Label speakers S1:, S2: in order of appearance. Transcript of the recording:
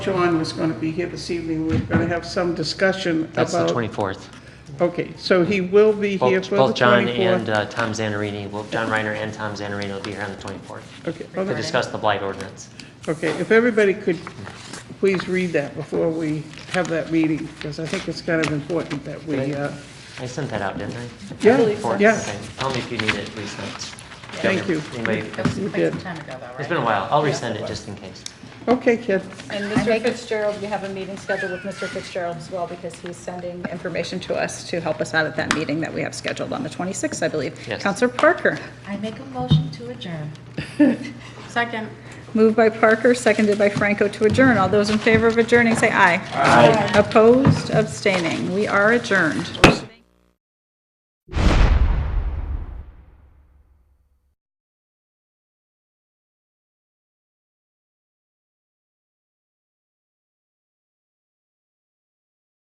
S1: John was going to be here this evening. We are going to have some discussion about...
S2: That's the 24th.
S1: Okay, so he will be here
S2: Both
S1: for the 24th.
S2: both John and uh, Tom Zanarini, well, John Reiner and Tom Zanarini will be here on the 24th
S1: Okay,
S2: to
S1: other-
S2: discuss the blight ordinance.
S1: okay, if everybody could please read that before we have that meeting, because I think it's kind of important that we,
S2: Right.
S1: uh,
S2: I sent that out, didn't I?
S1: yeah, yeah,
S2: Okay, Tell me if you need it resent.
S1: Thank you.
S2: Anybody,
S1: you
S3: Quite
S1: did.
S3: some time ago, though,
S2: it's
S3: right?
S2: been a while. I'll resend it just in case.
S1: Okay, Ken,
S4: And Mr. Fitzgerald, we have a meeting scheduled with Mr. Fitzgerald as well, because he's sending information to us to help us out at that meeting that we have scheduled on the 26th, I believe.
S2: Yes.
S4: Counselor Parker,
S3: I make a motion to adjourn. Second.
S4: moved by Parker, seconded by Franco to adjourn. All those in favor of adjourning, say aye. Aye. Opposed, abstaining. We are adjourned.
S1: we're